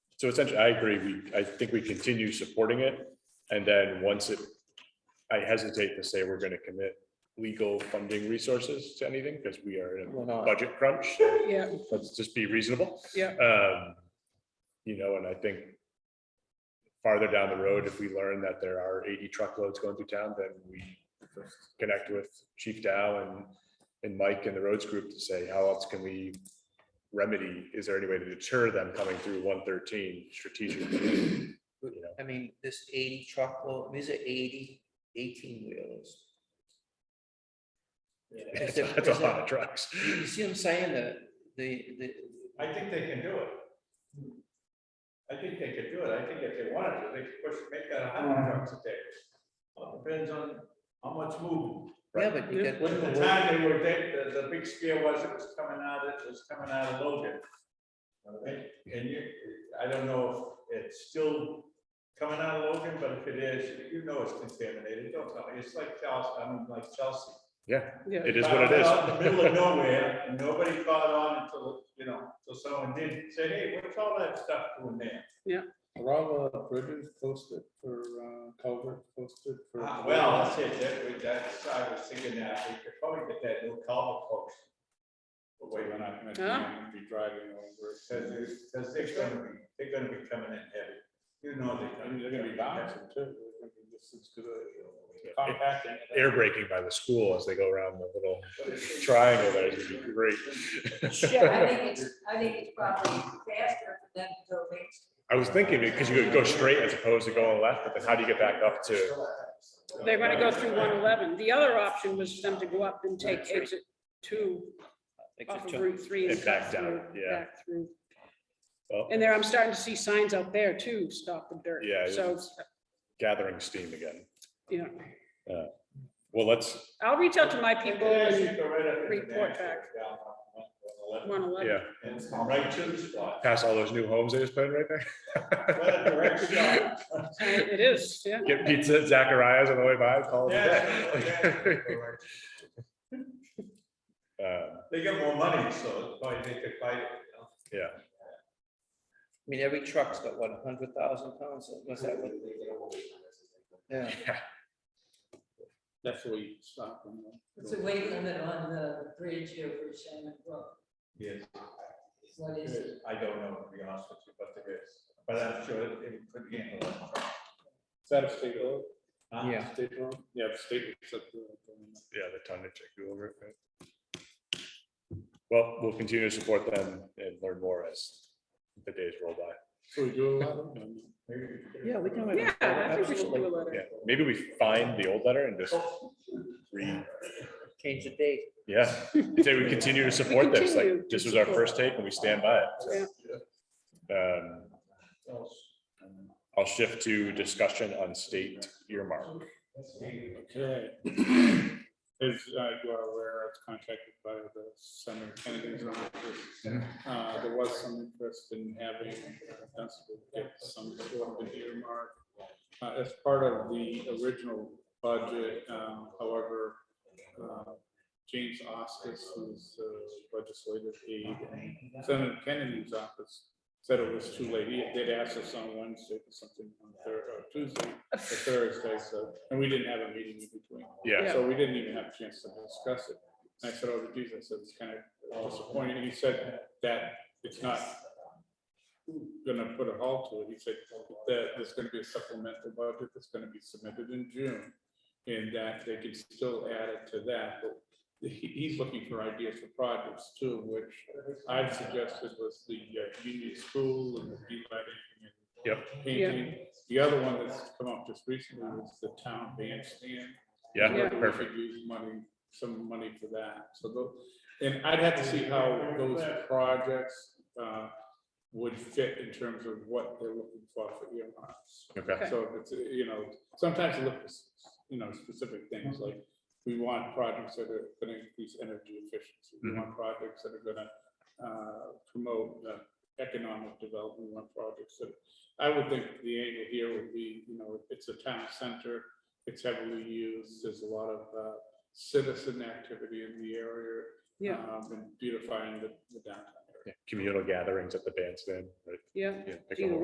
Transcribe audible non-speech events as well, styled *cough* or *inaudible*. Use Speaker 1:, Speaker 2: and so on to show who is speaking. Speaker 1: So essentially, I agree, we, I think we continue supporting it, and then once it, I hesitate to say we're gonna commit legal funding resources to anything, because we are in
Speaker 2: We're
Speaker 1: a
Speaker 2: not.
Speaker 1: budget crunch, so
Speaker 2: Yeah,
Speaker 1: let's just be reasonable.
Speaker 2: Yeah.
Speaker 1: Um, you know, and I think farther down the road, if we learn that there are eighty truckloads going through town, then we connect with Chief Dow and, and Mike and the roads group to say, how else can we remedy? Is there any way to deter them coming through one thirteen strategically? *laughs* You know,
Speaker 3: I mean, this eighty truckload, these are 80 18 wheelers.
Speaker 2: *laughs*
Speaker 3: Is there-
Speaker 1: That's a
Speaker 3: is there-
Speaker 1: lot of trucks.
Speaker 3: You see what I'm saying, the, the, the,
Speaker 4: I think they can do it. I think they could do it. I think if they wanted to, they could push, make that a hundred trucks a day. Well, Depends on how much movement.
Speaker 3: yeah, but you got.
Speaker 4: When the time they were, they, the, the big scare was, it was coming out, it was coming out of Logan. And and you, I don't know if it's still coming out of Logan, but if it is, you know it's contaminated, don't tell me, it's like Chelsea, I mean, like Chelsea.
Speaker 2: yeah.
Speaker 1: It is what it
Speaker 4: Out- out in the middle
Speaker 1: *laughs*
Speaker 4: of
Speaker 1: is.
Speaker 4: nowhere, and nobody caught on until, you know, until someone did say, hey, what's all that stuff doing there?
Speaker 2: Rob Bridges posted for uh, culvert posted for.
Speaker 4: Ah, Well, that's it, that, we- that's, I was thinking that, we could probably get that new culvert post. But wait, we're not gonna do
Speaker 2: Huh?
Speaker 4: it.
Speaker 2: Be driving over.
Speaker 4: Because, it's- because they're gonna be, they're gonna be coming in heavy. You know they're
Speaker 2: I mean,
Speaker 4: gonna.
Speaker 2: they're gonna be
Speaker 4: bouncing.
Speaker 2: bouncing too. They're gonna be just as good at compacting.
Speaker 1: Air braking by the school as they go around the little triangle there is gonna be great.
Speaker 5: I think it's, I think it's probably faster for them to go race.
Speaker 1: I was thinking, because you could go straight as opposed to going left, but then how do you get back up to?
Speaker 6: They're gonna go through one eleven. The other option was for them to go up and take exit two off of Route three.
Speaker 1: And back
Speaker 6: cut
Speaker 1: down,
Speaker 6: through,
Speaker 1: yeah.
Speaker 6: back through.
Speaker 1: Well,
Speaker 6: And there, I'm starting to see signs out there too, stop the dirt.
Speaker 1: Yeah, it
Speaker 6: So,
Speaker 1: is. Gathering steam again.
Speaker 6: you know,
Speaker 1: Well, let's,
Speaker 6: I'll reach out to my people and report
Speaker 4: Report
Speaker 6: back. one eleven.
Speaker 1: yeah,
Speaker 4: And it's right to the spot.
Speaker 1: pass all those new homes they just put in right
Speaker 4: What a
Speaker 1: there.
Speaker 4: direct shot.
Speaker 6: It is, yeah.
Speaker 1: Get pizza at Zacharias on the way by, call it a
Speaker 4: Yeah.
Speaker 1: day. *laughs* Um,
Speaker 4: They get more money, so it's probably they could buy it. you know.
Speaker 3: I mean, every truck's got what, hundred thousand pounds, was that what? Yeah,
Speaker 2: That's where you stop them.
Speaker 5: It's a weight limit on the bridge over Shannon Brook,
Speaker 4: Yes,
Speaker 5: is what is it?
Speaker 4: I don't know, to be honest with you, but there is, but I'm sure it it could handle it.
Speaker 2: Is that a state road?
Speaker 4: Huh?
Speaker 3: yeah,
Speaker 2: State road? Yeah, the state. except, uh,
Speaker 1: Yeah, the tonnage. I go over it, right? Well, we'll continue to support them and learn more as the days roll by.
Speaker 2: So we do a lot of them.
Speaker 4: Maybe we could-
Speaker 3: yeah, we can. write a-
Speaker 6: Yeah, I think we should do
Speaker 3: absolutely.
Speaker 6: a letter.
Speaker 1: Yeah, maybe we find the old letter and just read.
Speaker 3: Change the date.
Speaker 1: Yeah, say we continue to support this,
Speaker 6: continue
Speaker 1: like,
Speaker 6: to
Speaker 1: this was our
Speaker 6: support.
Speaker 1: first take and we stand by it.
Speaker 6: Yeah.
Speaker 1: Um, I'll shift to discussion on state earmark.
Speaker 2: Okay. As uh, you are aware, I was contacted by the Senator Kennedy's office. Uh, There was some interest in having uh, Dunstable get some sort of an earmark uh, as part of the original budget. um, However, uh, James Oscus, who's uh, legislative aide in Senator Kennedy's office, said it was too late. He did ask us on Wednesday for something on Thursday, or Tuesday, or Thursday, so, and we didn't have a meeting in between.
Speaker 1: Yeah,
Speaker 2: So we didn't even have a chance to discuss it. And I said, oh, geez, I said, it's kind of disappointing. And He said that it's not gonna put a halt to it. He said that there's gonna be a supplemental budget that's gonna be submitted in June. And that they can still add it to that, but he, he's looking for ideas for projects too, which I suggested was the uh, Union School and the delighting and painting. The other one that's come up just recently was the town bandstand.
Speaker 1: yeah,
Speaker 6: Yeah.
Speaker 2: We
Speaker 1: perfect.
Speaker 2: could Use money, some money for that, so tho- and I'd have to see how those projects, uh, would fit in terms of what they're looking for for earmarks.
Speaker 1: Okay,
Speaker 2: So if it's, you know, sometimes you look, at s- you know, specific things like, we want projects that are gonna increase energy efficiency. We want projects that are gonna uh, promote uh, economic development, we want projects that, I would think the angle here would be, you know, it's a town center, it's heavily used, there's a lot of uh, citizen activity in the area.
Speaker 6: Yeah.
Speaker 2: um, And beautifying the the downtown area.
Speaker 1: Yeah, communal gatherings at the bandstand, right?
Speaker 6: Yeah.
Speaker 1: Yeah, like a
Speaker 6: Either
Speaker 1: whole-